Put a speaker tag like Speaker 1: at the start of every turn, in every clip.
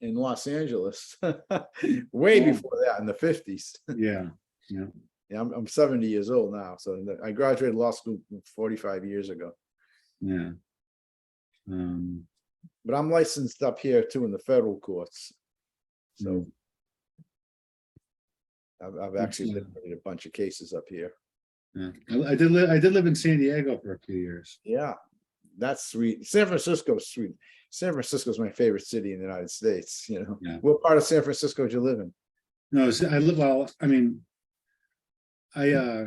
Speaker 1: in Los Angeles, way
Speaker 2: Yeah.
Speaker 1: before that in the fifties.
Speaker 2: Yeah,
Speaker 1: Yeah, I'm, I'm seventy years old now, so the- I graduated law school forty-five years ago.
Speaker 2: yeah. Um,
Speaker 1: But I'm licensed up here too in the federal courts. So
Speaker 2: Mm.
Speaker 1: I've, I've actually
Speaker 2: Excellent.
Speaker 1: litigated a bunch of cases up here.
Speaker 2: yeah. I I did, li- I did live in San Diego for a few years.
Speaker 1: Yeah, that's sweet. San Francisco's sweet. San Francisco's my favorite city in the United States, you know.
Speaker 2: Yeah.
Speaker 1: What part of San Francisco do you live in?
Speaker 2: No, s- I live, well, I mean, I, uh,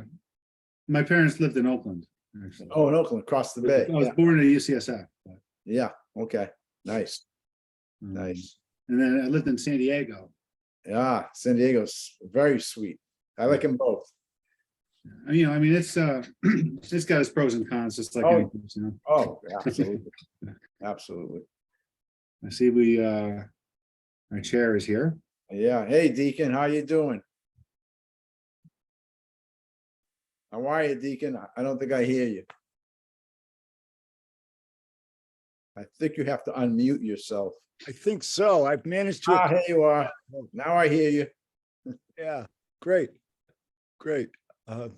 Speaker 2: my parents lived in Oakland, actually.
Speaker 1: Oh, in Oakland, across the bay.
Speaker 2: I was born at UCSF. but, um,
Speaker 1: Yeah, okay, nice, nice.
Speaker 2: And then I lived in San Diego.
Speaker 1: Yeah, San Diego's very sweet. I like them both.
Speaker 2: I- You know, I mean, it's, uh, it's got its pros and cons, just like,
Speaker 1: Oh.
Speaker 2: any place, you know,
Speaker 1: Oh, absolutely. Absolutely.
Speaker 2: I see we, uh, our chair is here.
Speaker 1: Yeah. Hey, Deacon, how you doing? How are you, Deacon? I- I don't think I hear you. I think you have to unmute yourself.
Speaker 3: I think so. I've managed
Speaker 1: Ah,
Speaker 3: to,
Speaker 1: here you are. Now I hear you.
Speaker 3: yeah, great, great. Uh,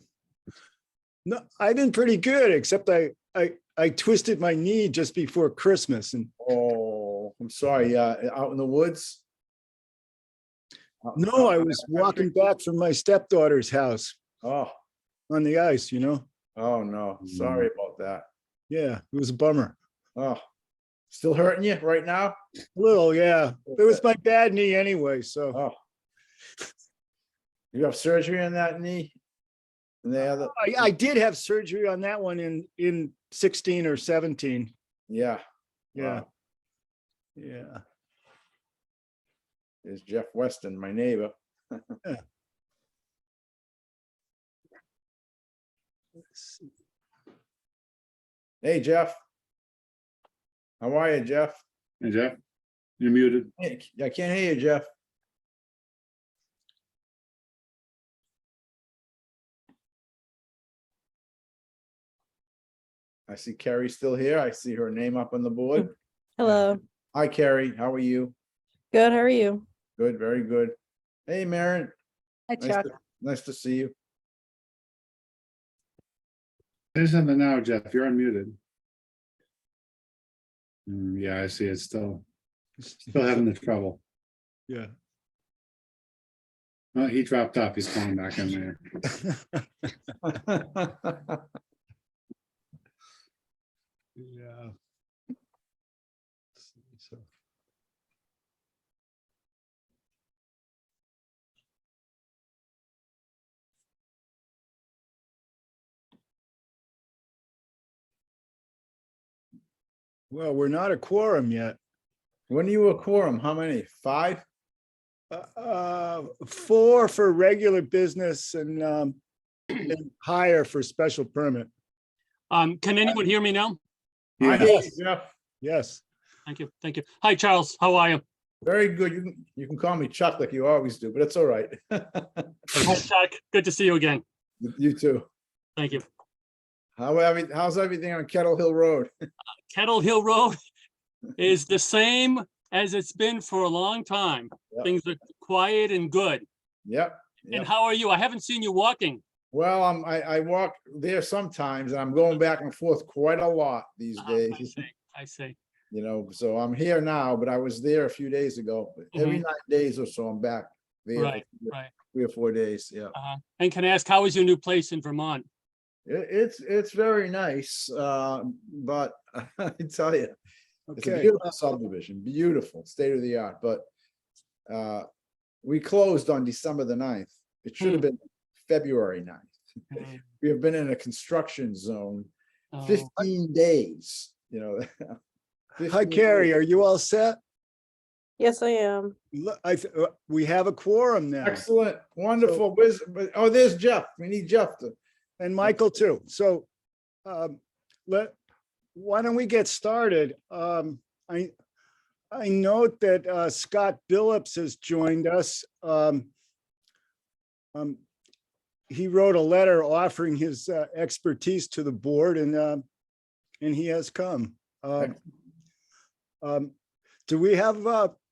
Speaker 3: No, I've been pretty good, except I, I, I twisted my knee just before Christmas and
Speaker 1: Oh, I'm sorry. Uh, out in the woods? Out-
Speaker 3: no, I
Speaker 1: out-
Speaker 3: was walking back from my stepdaughter's house
Speaker 1: Oh,
Speaker 3: on the ice, you know?
Speaker 1: oh, no. Sorry about that.
Speaker 3: Yeah, it was a bummer.
Speaker 1: Oh, still hurting you right now?
Speaker 3: A Little, yeah. It was my bad knee anyway, so
Speaker 1: Oh. You have surgery on that knee? And the other,
Speaker 3: I, I did have surgery on that one in, in sixteen or seventeen.
Speaker 1: yeah.
Speaker 3: Yeah,
Speaker 1: wow.
Speaker 3: yeah.
Speaker 1: There's Jeff Weston, my neighbor.
Speaker 3: Let's see.
Speaker 1: Hey, Jeff. How are you, Jeff?
Speaker 2: Hey, Jeff, you're muted.
Speaker 1: Hey, I can't hear you, Jeff. I see Carrie still here. I see her name up on the
Speaker 3: Mm.
Speaker 1: board.
Speaker 4: Hello.
Speaker 1: Hi, Carrie. How are you?
Speaker 4: Good. How are you?
Speaker 1: Good, very good. Hey, Maren.
Speaker 4: Hi,
Speaker 1: Nice to- Nice to see you.
Speaker 2: Say something now, Jeff, you're unmuted. Mm, Yeah, I see, it's still, still having the trouble.
Speaker 3: Yeah.
Speaker 2: Oh, he dropped off, he's calling back in there.
Speaker 3: Yeah. Let's see, So Well, we're not a quorum yet.
Speaker 1: When are you a quorum? How many? Five?
Speaker 3: Uh, uh, Four for regular business and um, and higher for special permit.
Speaker 5: Um, can anyone hear me now?
Speaker 1: I hear you,
Speaker 3: Yes.
Speaker 1: Jeff.
Speaker 3: Yes.
Speaker 5: Thank you, thank you. Hi, Charles, how are you?
Speaker 1: Very good. You can, you can call me Chuck like you always do, but it's all right.
Speaker 5: Hi, Chuck, good to see you again.
Speaker 1: You too.
Speaker 5: Thank you.
Speaker 1: How, every- how's everything on Kettle Hill Road?
Speaker 5: Kettle Hill Road is the same as it's been for a long time.
Speaker 1: Yep.
Speaker 5: Things are quiet and good.
Speaker 1: Yep.
Speaker 5: And
Speaker 1: yep.
Speaker 5: how are you? I haven't seen you walking.
Speaker 1: Well, I'm, I, I walk there sometimes and I'm going back and forth quite a lot these
Speaker 5: Ah, I
Speaker 1: days,
Speaker 5: see, I see.
Speaker 1: you know, so I'm here now, but I was there a few days ago. But Every nine days or so, I'm back there. for
Speaker 5: Mm-hmm. Right, right.
Speaker 1: Three or four days, yeah.
Speaker 5: Uh-huh. And can I ask, how is your new place in Vermont?
Speaker 1: It, it's, it's very nice, uh, but I tell you, It's a
Speaker 3: Okay.
Speaker 1: beautiful subdivision, beautiful, state of the art, but uh, we closed on December the 9th. It should have been February 9th.
Speaker 5: Mm,
Speaker 1: We have been in a construction zone
Speaker 5: oh,
Speaker 1: fifteen days, you know.
Speaker 3: Hi,
Speaker 1: 15
Speaker 3: Carrie.
Speaker 1: days.
Speaker 3: Are you all set?
Speaker 4: Yes, I am.
Speaker 3: Look, I, th- uh, we have a quorum now
Speaker 1: Excellent, wonderful, where's, but- oh, there's Jeff, we need Jeff to,
Speaker 3: and Michael too. So um, let, why don't we get started? Um, I, I note that uh, Scott Billups has joined us. Um, um, He wrote a letter offering his uh, expertise to the board and, uh, and he has come. Um, um, Do we have uh,